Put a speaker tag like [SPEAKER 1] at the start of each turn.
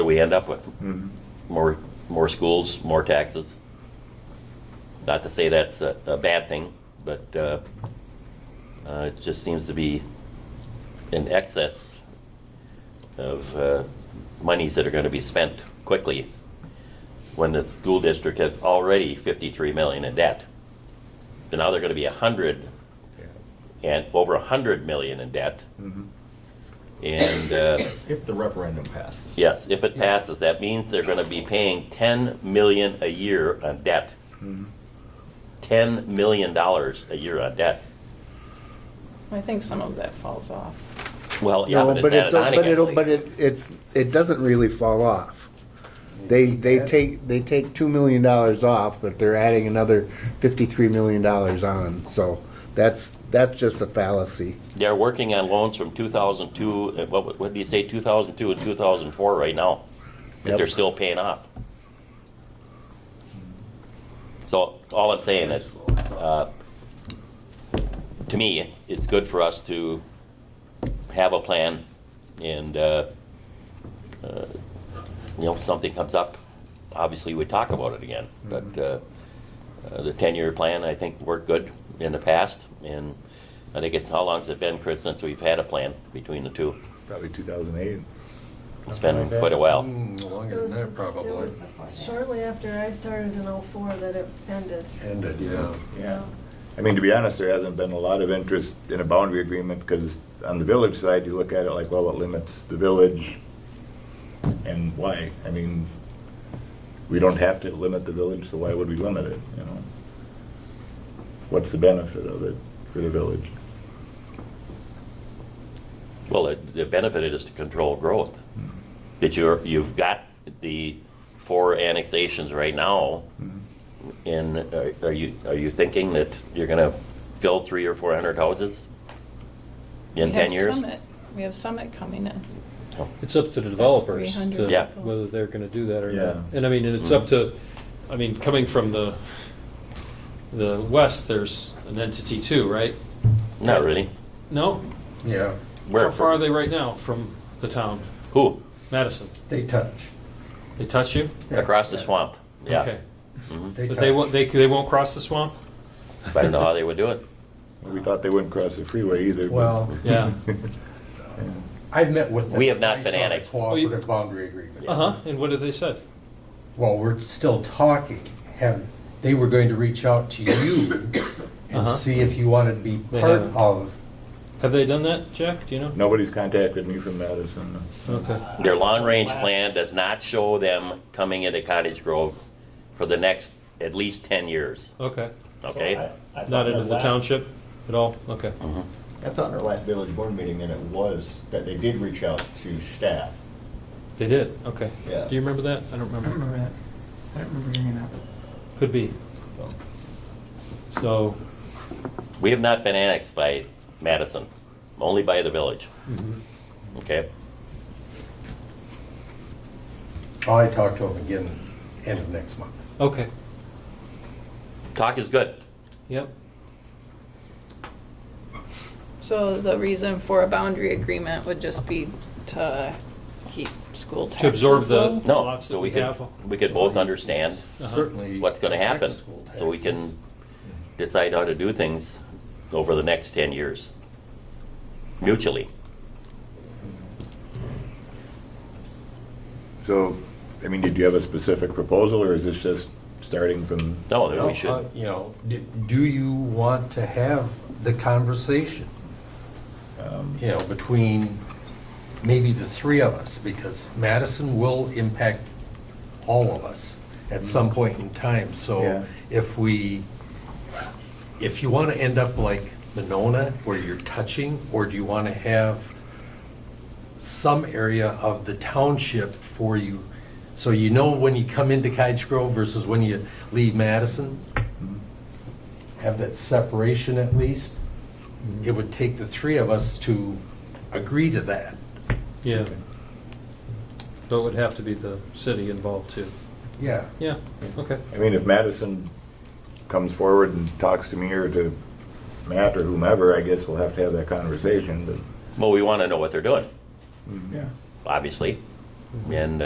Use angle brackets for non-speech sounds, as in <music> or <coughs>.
[SPEAKER 1] that we end up with. More, more schools, more taxes. Not to say that's a, a bad thing, but, uh, uh, it just seems to be in excess of, uh, monies that are gonna be spent quickly when the school district has already fifty-three million in debt. And now they're gonna be a hundred and over a hundred million in debt. And, uh,
[SPEAKER 2] If the referendum passes.
[SPEAKER 1] Yes, if it passes, that means they're gonna be paying ten million a year on debt.
[SPEAKER 2] Mm-hmm.
[SPEAKER 1] Ten million dollars a year on debt.
[SPEAKER 3] I think some of that falls off.
[SPEAKER 1] Well, yeah,
[SPEAKER 4] No,
[SPEAKER 1] but
[SPEAKER 4] but
[SPEAKER 1] it's
[SPEAKER 4] it's,
[SPEAKER 1] added on
[SPEAKER 4] but it'll,
[SPEAKER 1] again.
[SPEAKER 4] but it, it's, it doesn't really fall off. They, they take, they take two million dollars off, but they're adding another fifty-three million dollars on, so that's, that's just a fallacy.
[SPEAKER 1] They're working on loans from two thousand two, uh, what, what did you say, two thousand two and two thousand four right now? That
[SPEAKER 4] Yep.
[SPEAKER 1] they're still paying off. So all I'm saying is, uh, to me, it's, it's good for us to have a plan and, uh, uh, you know, if something comes up, obviously we talk about it again. But, uh, uh, the ten-year plan, I think, worked good in the past. And I think it's, how long's it been, Chris, since we've had a plan between the two?
[SPEAKER 2] Probably 2008.
[SPEAKER 1] It's been quite a while.
[SPEAKER 5] Mm,
[SPEAKER 6] It
[SPEAKER 5] Longer
[SPEAKER 6] was-
[SPEAKER 5] than that,
[SPEAKER 6] It
[SPEAKER 5] probably.
[SPEAKER 6] was shortly after I started in '04 that it ended.
[SPEAKER 5] Ended,
[SPEAKER 7] uh,
[SPEAKER 5] yeah.
[SPEAKER 2] Yeah. I mean, to be honest, there hasn't been a lot of interest in a boundary agreement because on the village side, you look at it like, well, it limits the village. And why? I mean, we don't have to limit the village, so why would we limit it, you know? What's the benefit of it for the village?
[SPEAKER 1] Well, it- the benefit is to control growth. That you're, you've got the four annexations right now. And are- uh, are you, are you thinking that you're gonna fill three or four hundred houses in
[SPEAKER 3] We
[SPEAKER 1] ten
[SPEAKER 3] have
[SPEAKER 1] years?
[SPEAKER 3] Summit- We have Summit coming in.
[SPEAKER 1] No.
[SPEAKER 8] It's up to the developers
[SPEAKER 3] 300
[SPEAKER 8] to-
[SPEAKER 1] Yeah.
[SPEAKER 8] whether they're gonna do that or not.
[SPEAKER 2] Yeah.
[SPEAKER 8] And I mean, and it's up to, I mean, coming from the, the west, there's an entity too, right?
[SPEAKER 1] Not really.
[SPEAKER 8] No?
[SPEAKER 5] Yeah.
[SPEAKER 1] Where?
[SPEAKER 8] How far are they right now from the town?
[SPEAKER 1] Who?
[SPEAKER 8] Madison?
[SPEAKER 7] They touch.
[SPEAKER 8] They touch you?
[SPEAKER 1] Across the swamp, yeah. Mm-hmm.
[SPEAKER 8] Okay.
[SPEAKER 7] They
[SPEAKER 8] But they
[SPEAKER 7] touch.
[SPEAKER 8] won't, they, they won't cross the swamp?
[SPEAKER 1] I don't know how they would do it.
[SPEAKER 2] We thought they wouldn't cross the freeway either. but-
[SPEAKER 7] Well,
[SPEAKER 2] <laughs>
[SPEAKER 8] Yeah.
[SPEAKER 7] I've met with them.
[SPEAKER 1] We have not
[SPEAKER 7] twice
[SPEAKER 1] been
[SPEAKER 7] on a
[SPEAKER 1] annexed.
[SPEAKER 7] Cooperative boundary agreement.
[SPEAKER 8] <laughs> Uh-huh, and what have they said?
[SPEAKER 7] Well, we're still talking. Have, they were going to reach out to you
[SPEAKER 1] <coughs>
[SPEAKER 8] Uh-huh.
[SPEAKER 7] and see if you wanted to be
[SPEAKER 8] They
[SPEAKER 7] part
[SPEAKER 8] haven't.
[SPEAKER 7] of.
[SPEAKER 8] Have they done that, Jack? Do you know?
[SPEAKER 2] Nobody's contacted me from Madison.
[SPEAKER 8] Okay.
[SPEAKER 1] Their long-range plan does not show them coming into Cottage Grove for the next at least 10 years,
[SPEAKER 8] Okay.
[SPEAKER 1] okay?
[SPEAKER 8] Not into the township at all? Okay.
[SPEAKER 1] Mm-hmm.
[SPEAKER 2] I thought in our last village board meeting that it was, that they did reach out to staff.
[SPEAKER 8] They did, okay.
[SPEAKER 2] Yeah.
[SPEAKER 8] Do you remember that? I don't remember.
[SPEAKER 9] remember that. I don't remember hearing that.
[SPEAKER 8] Could be. So,
[SPEAKER 1] We have not been annexed by Madison, only by the village,
[SPEAKER 8] Mm-hmm.
[SPEAKER 1] okay?
[SPEAKER 7] I'll I talk to them again end of next month.
[SPEAKER 8] okay,
[SPEAKER 1] Talk is good.
[SPEAKER 8] yep.
[SPEAKER 3] So the reason for a boundary agreement would just be to keep school taxes
[SPEAKER 8] To absorb the
[SPEAKER 3] low?
[SPEAKER 1] No,
[SPEAKER 8] lots that
[SPEAKER 1] so
[SPEAKER 8] we
[SPEAKER 1] we could,
[SPEAKER 8] have.
[SPEAKER 1] we could both understand
[SPEAKER 7] Certainly.
[SPEAKER 1] what's gonna
[SPEAKER 7] affect
[SPEAKER 1] happen,
[SPEAKER 7] school
[SPEAKER 1] so we
[SPEAKER 7] taxes.
[SPEAKER 1] can decide how to do things over the next 10 years mutually.
[SPEAKER 2] So, I mean, did you have a specific proposal, or is this just starting from?
[SPEAKER 1] No, that we
[SPEAKER 7] No, uh,
[SPEAKER 1] should,
[SPEAKER 7] You know, do- do you want to have the conversation? You know, between maybe the three of us, because Madison will impact all of us at some point in time.
[SPEAKER 2] Yeah.
[SPEAKER 7] So if we, if you want to end up like Monona, where you're touching, or do you want to have some area of the township for you? So you know when you come into Cottage Grove versus when you leave Madison? Have that separation at least? It would take the three of us to agree to that.
[SPEAKER 8] Yeah. But it would have to be the city involved too.
[SPEAKER 7] Yeah.
[SPEAKER 8] Yeah, okay.
[SPEAKER 2] I mean, if Madison comes forward and talks to me or to Matt or whomever, I guess we'll have to have that conversation, but. Mm-hmm.
[SPEAKER 1] well, we want to know what they're doing,
[SPEAKER 2] Yeah.
[SPEAKER 1] obviously. And